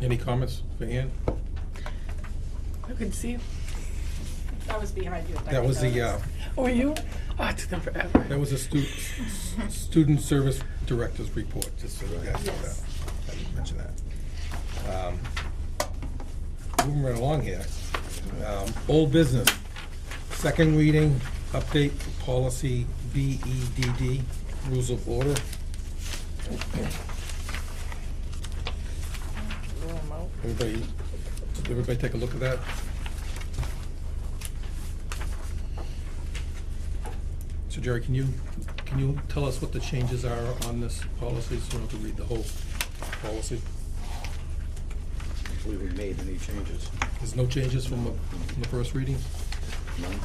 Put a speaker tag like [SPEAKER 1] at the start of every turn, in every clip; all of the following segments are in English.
[SPEAKER 1] Any comments for Ann?
[SPEAKER 2] I couldn't see you.
[SPEAKER 3] That was behind you. if I
[SPEAKER 1] That
[SPEAKER 3] could
[SPEAKER 1] was the, uh,
[SPEAKER 3] notice.
[SPEAKER 2] Oh, you? Oh, it took them forever.
[SPEAKER 1] that was the stu- s- s- student service director's report, just so you guys know that.
[SPEAKER 3] Yes.
[SPEAKER 1] I didn't mention that. Um, Moving right along here. Um, Old business, second reading, update for policy BEDD, rules of order.
[SPEAKER 2] Roll 'em out.
[SPEAKER 1] Everybody, did everybody take a look at that? So Jerry, can you, can you tell us what the changes are on this policy, so we don't have to read the whole policy?
[SPEAKER 4] We haven't made any changes.
[SPEAKER 1] There's no changes from the, from the first reading,
[SPEAKER 4] None.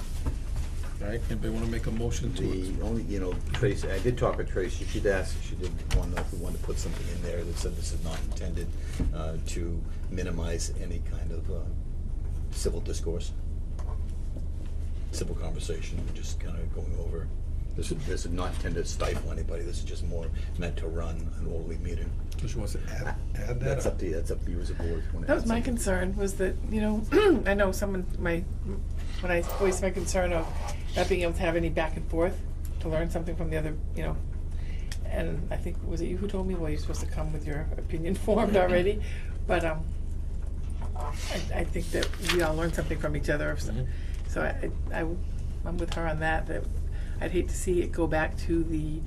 [SPEAKER 1] right? Anybody wanna make a motion to,
[SPEAKER 4] The only, you know, Tracy, I did talk with Tracy, she'd asked, she did want to know if we wanted to put something in there that said this is not intended uh, to minimize any kind of uh, civil discourse, civil conversation, We're just kind of going over. This is, this is not intended to stifle anybody, this is just more meant to run an orderly meeting.
[SPEAKER 1] does she wants to add, add that?
[SPEAKER 4] That's up to you, that's up to you as a board. if you wanna
[SPEAKER 2] That
[SPEAKER 4] add
[SPEAKER 2] was my
[SPEAKER 4] something.
[SPEAKER 2] concern, was that, you know, I know someone, my, when I voiced my concern of not being able to have any back and forth, to learn something from the other, you know, and I think, was it you who told me, well, you're supposed to come with your opinion formed already? But, um, I, I think that we all learn something from each other, so,
[SPEAKER 1] Mhm.
[SPEAKER 2] so I, I, I'm with her on that, that I'd hate to see it go back to the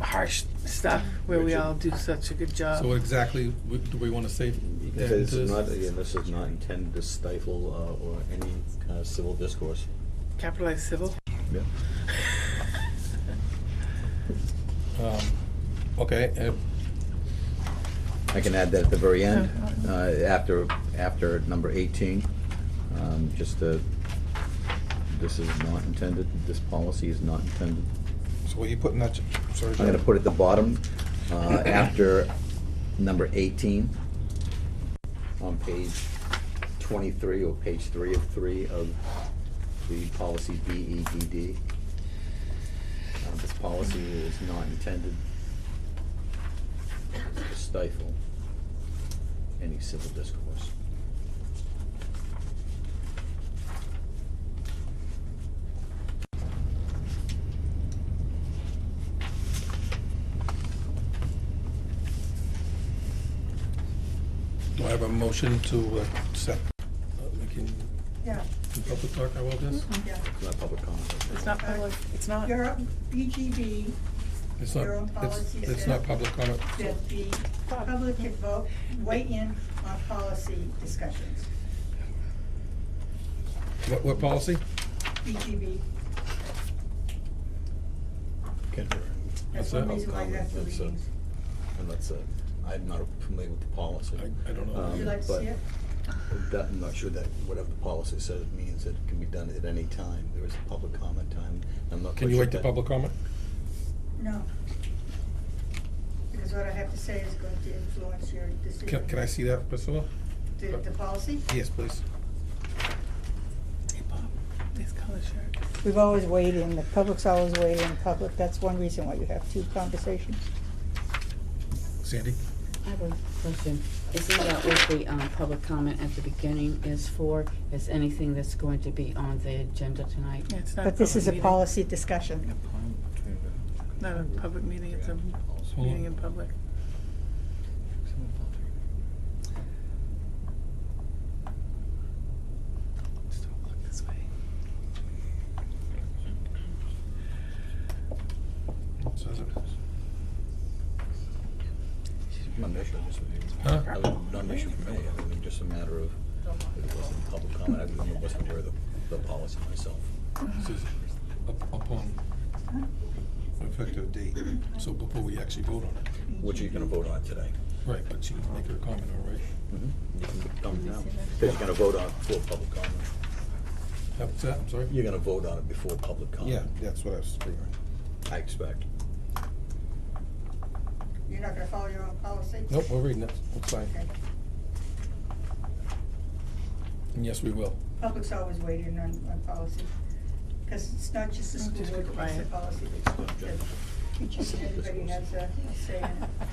[SPEAKER 2] harsh stuff, where we
[SPEAKER 4] Rigid.
[SPEAKER 2] all do such a good job.
[SPEAKER 1] So exactly, w- do we wanna say?
[SPEAKER 4] You can
[SPEAKER 1] that
[SPEAKER 4] say this
[SPEAKER 1] into
[SPEAKER 4] is not, again, this is not intended to stifle uh, or any kind of civil discourse.
[SPEAKER 2] Capitalized civil.
[SPEAKER 4] Yeah.
[SPEAKER 1] Um, Okay, uh,
[SPEAKER 4] I can add that at the very end,
[SPEAKER 2] Yeah.
[SPEAKER 4] uh, after, after number 18, um, just uh this is not intended, this policy is not intended.
[SPEAKER 1] so what are you putting that, sorry,
[SPEAKER 4] I'm
[SPEAKER 1] Jerry?
[SPEAKER 4] gonna put at the bottom, uh, after number 18, on page 23 or page 3 of 3 of the policy BEDD. Uh, This policy is not intended to stifle any civil discourse.
[SPEAKER 1] Do I have a motion to accept, uh, we can,
[SPEAKER 5] Yeah,
[SPEAKER 1] can public talk about this?
[SPEAKER 5] yeah.
[SPEAKER 4] It's not public comment.
[SPEAKER 2] It's not public, it's not.
[SPEAKER 5] Your BGB
[SPEAKER 1] It's not,
[SPEAKER 5] Your own
[SPEAKER 1] it's,
[SPEAKER 5] policy
[SPEAKER 1] it's
[SPEAKER 5] says-
[SPEAKER 1] not public comment.
[SPEAKER 5] that the public can vote, weigh in on policy discussions.
[SPEAKER 1] What, what policy?
[SPEAKER 5] BGB,
[SPEAKER 4] Can-
[SPEAKER 1] What's
[SPEAKER 5] that's one
[SPEAKER 1] that?
[SPEAKER 5] reason why that's the
[SPEAKER 4] That's a-
[SPEAKER 5] meetings.
[SPEAKER 4] And that's, a- I'm not familiar with the policy.
[SPEAKER 1] I- I don't know.
[SPEAKER 4] Um,
[SPEAKER 5] Would you like to
[SPEAKER 4] but-
[SPEAKER 5] see it?
[SPEAKER 4] That, I'm not sure that whatever the policy says means it can be done at any time. There is a public comment time. I'm not.
[SPEAKER 1] Can
[SPEAKER 4] quite
[SPEAKER 1] you
[SPEAKER 4] sure
[SPEAKER 1] wait to
[SPEAKER 4] that-
[SPEAKER 1] public comment?
[SPEAKER 5] No. Because what I have to say is going to influence your decision.
[SPEAKER 1] Can, can I see that, Priscilla?
[SPEAKER 5] The, the policy?
[SPEAKER 1] Yes, please.
[SPEAKER 2] Hey, Bob, Nice color shirt.
[SPEAKER 6] We've always weighed in, the public's always weighed in public, that's one reason why you have two conversations.
[SPEAKER 1] Sandy?
[SPEAKER 7] I have a question. Isn't that what the um, public comment at the beginning is for? Is anything that's going to be on the agenda tonight?
[SPEAKER 2] Yeah, it's not
[SPEAKER 6] But this
[SPEAKER 2] public
[SPEAKER 6] is a
[SPEAKER 2] meeting.
[SPEAKER 6] policy discussion.
[SPEAKER 2] Not a public meeting, it's a
[SPEAKER 1] Hold
[SPEAKER 2] meeting
[SPEAKER 1] on.
[SPEAKER 2] in public. Just don't look this way.
[SPEAKER 4] Not an issue, just a-
[SPEAKER 1] Huh?
[SPEAKER 4] I was- Not an issue for me. I mean, just a matter of, it wasn't public comment. I didn't- wasn't aware of the, the policy myself.
[SPEAKER 1] This is up- Upon effective date, so before we actually vote on it.
[SPEAKER 4] Which are you gonna vote on today?
[SPEAKER 1] Right, but she can make her comment, all right?
[SPEAKER 4] You can come now. Because you're gonna vote on it before public comment.
[SPEAKER 1] That's that, I'm sorry?
[SPEAKER 4] You're gonna vote on it before public comment.
[SPEAKER 1] Yeah, that's what I was figuring.
[SPEAKER 4] I expect.
[SPEAKER 5] You're not gonna follow your own policy?
[SPEAKER 1] Nope, we're reading it, it's fine.
[SPEAKER 5] Okay.
[SPEAKER 1] And yes, we will.
[SPEAKER 5] Public's always weighed in on, on policy, because it's not just the
[SPEAKER 2] Oh,
[SPEAKER 5] school
[SPEAKER 2] just
[SPEAKER 5] board that makes the
[SPEAKER 2] quiet.
[SPEAKER 5] policy, it's, the teachers and everybody has a say in it.